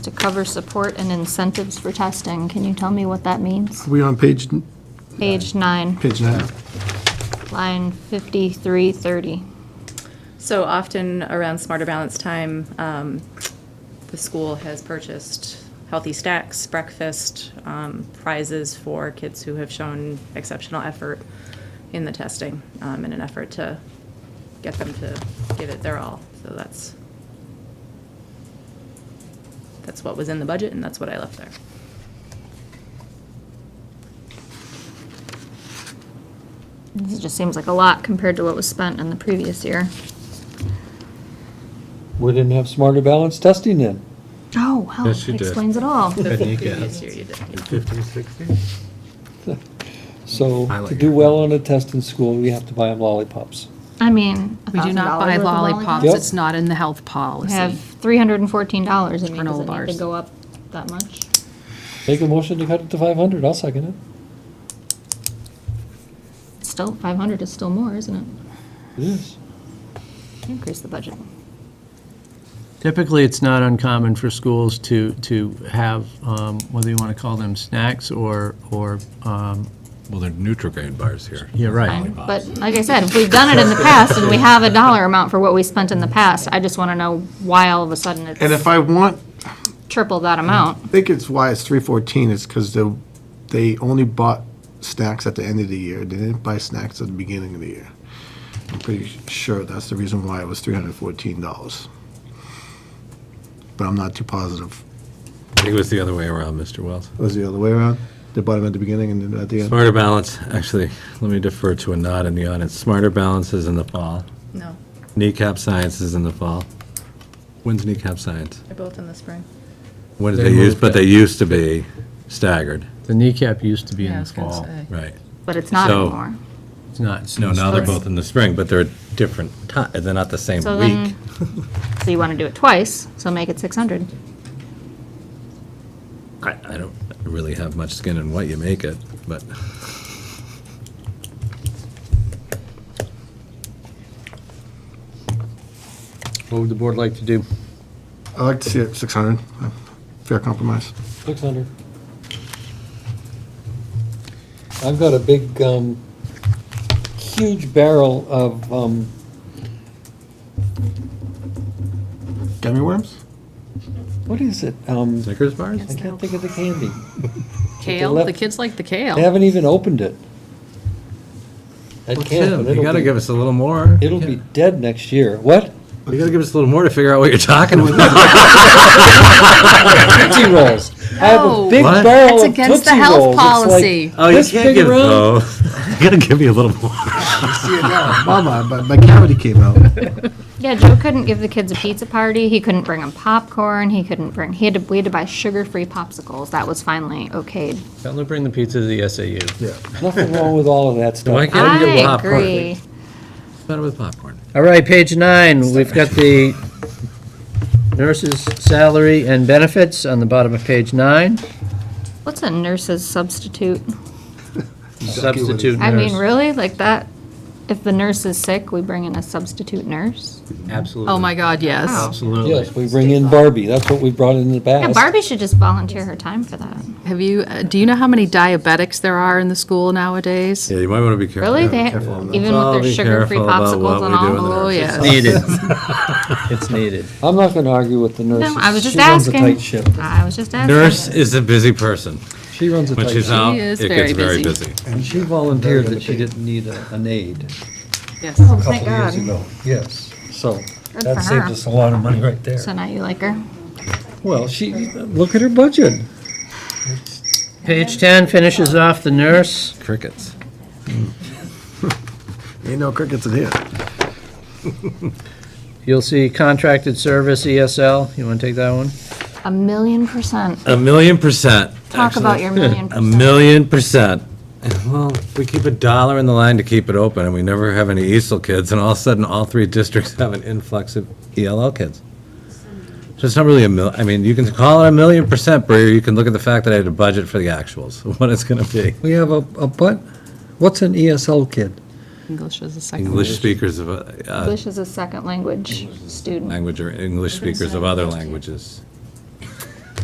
to cover support and incentives for testing. Can you tell me what that means? We on page, Page nine, page nine? line 5330. So often around Smarter Balance time, um, the school has purchased healthy stacks, breakfast, um, prizes for kids who have shown exceptional effort in the testing, um, in an effort to get them to give it their all. So that's, that's what was in the budget and that's what I left there. This just seems like a lot compared to what was spent in the previous year. We didn't have smarter balance testing then. Oh, well, Yes, you did. explains it all. The Then you get- previous year you did. Fifty, sixty? So I like to do your- well on a test in school, we have to buy them lollipops. I mean, We do not buy $1,000 worth of lollipops. Yep. It's not in the health We have policy. $314. I mean, does it need Granola to bars. go up that much? Make a motion to cut it to five hundred, I'll second it. Still, 500 is still more, isn't it? It is. Increase the budget. Typically, it's not uncommon for schools to, to have, um, whether you want to call them snacks or, or, um, Well, they're Nutrigrain bars here. yeah, right. Fine. But like I said, if we've done it in the past and we have a dollar amount for what we spent in the past, I just want to know why all of a sudden And if it's I want, triple that Mm-hmm. amount. I think it's why it's three fourteen, it's because they, they only bought snacks at the end of the year, they didn't buy snacks at the beginning of the year. I'm pretty sure that's the reason why it was three hundred fourteen dollars. But I'm not too positive. I think it was the other way around, Mr. Wells. Was it the other way around? They bought them at the beginning and then at the end? Smarter Balance, actually, let me defer to a nod in the audience. Smarter Balance is in the fall. No, Kneecap Science is in the fall. When's Kneecap Science? they're both in the spring. When did They they use, moved but it. they used to be staggered, The kneecap used to be Yeah, I in the was gonna fall. say. right? But it's not So- anymore. It's not. it's No, now they're Spring. both in the spring, but they're different ti, they're not the same So week. then, so you want to do it twice, so make it 600. I, I don't really have much skin in what you make it, but What would the board like to do? I like to see it six hundred, fair compromise. Six hundred. I've got a big, um, huge barrel of, um, Gummy worms? what is it? Um, Snickers bars? I can't think of the candy. Kale, left- the kids like the They kale. haven't even opened it. At camp, Well, and Tim, you it'll gotta be- give us a little more. It'll be dead next year. What? You gotta give us a little more to figure out what you're talking about. Tootsie Rolls. I have a No. Oh. big What? barrel That's of against the Tootsie health Rolls. It's like policy. Oh, you this can't big give, around. oh, you gotta give me a little more. Mama, but my cavity came out. Yeah, Joe couldn't give the kids a pizza party. He couldn't bring them popcorn. He couldn't bring, he had to, we had to buy sugar-free popsicles. That was finally okayed. Tell them to bring the pizza to the SAU. Nothing wrong with all of that Why stuff. can't you get I popcorn? agree. What's better with popcorn? All right, page nine, we've got the nurse's salary and benefits on the bottom of page nine. What's a nurse's substitute? Substitute I mean, nurse. really, like that, if the nurse is sick, we bring in a substitute nurse? Absolutely. Oh, my God, yes. Absolutely. Yes, we bring in Barbie. That's what we brought in the Yeah, past. Barbie should just volunteer her time for that. Have you, uh, do you know how many diabetics there are in the school nowadays? Yeah, you might wanna be careful. Really? They, careful on that. even Well, with their be sugar-free careful about what popsicles and we do in the all? Oh, nurses. yes. Needed. It's needed. I'm not going to argue with the nurses. No, I was just She asking. runs a tight ship. I was just asking. Nurse is a busy person. She runs a When tight she's ship. out, it is gets very very busy. busy. And she volunteered Very that she underpaid. didn't need a- an aide Yes. a couple years ago. Yes, so Good for that saved her. us a lot of money right there. So now you like her? Well, she, look at her budget. Page 10 finishes off the nurse. Crickets. Ain't no crickets in here. You'll see contracted service, ESL. You want to take that one? A million percent. A million percent. Talk about actually. your million A percent. million percent. Well, we keep a dollar in the line to keep it open, and we never have any ESL kids, and all of a sudden, all three districts have an influx of ELL kids. So it's not really a mil, I mean, you can call it a million percent, Bree, or you can look at the fact that I had a budget for the actuals, what it's gonna be. We have a, a butt, what's an E ESL kid? English is a second. English speakers of, uh, uh, English is a second language student. language or English speakers of other languages.